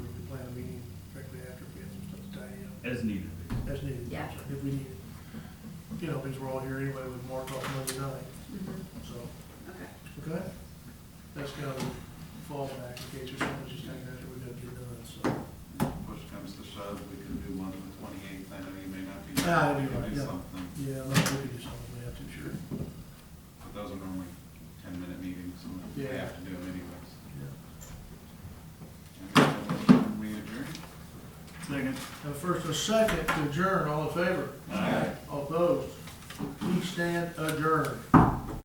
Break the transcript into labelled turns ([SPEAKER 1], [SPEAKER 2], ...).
[SPEAKER 1] as needed.
[SPEAKER 2] as needed.
[SPEAKER 3] Yeah.
[SPEAKER 2] If we need, it. you know, because we're all here anyway with Mark off Monday night,
[SPEAKER 3] Mhm.
[SPEAKER 2] so,
[SPEAKER 3] Okay,
[SPEAKER 2] okay? That's kind of fall back in case there's something just taking that we gotta get done, so.
[SPEAKER 4] Push comes to shove, we could do one on the twenty-eighth, I know you may not be. here,
[SPEAKER 2] Ah,
[SPEAKER 4] we
[SPEAKER 2] you're
[SPEAKER 4] could
[SPEAKER 2] right,
[SPEAKER 4] do
[SPEAKER 2] yeah.
[SPEAKER 4] something.
[SPEAKER 2] Yeah, let's look at this something we have to, sure.
[SPEAKER 4] But those are normally ten-minute meetings, and we
[SPEAKER 2] Yeah.
[SPEAKER 4] have to do them anyways.
[SPEAKER 2] Yeah.
[SPEAKER 4] And so we'll We adjourn.
[SPEAKER 1] Second.
[SPEAKER 2] Now, first and second to adjourn, all in favor?
[SPEAKER 1] Aye.
[SPEAKER 2] All opposed? Please stand adjourned.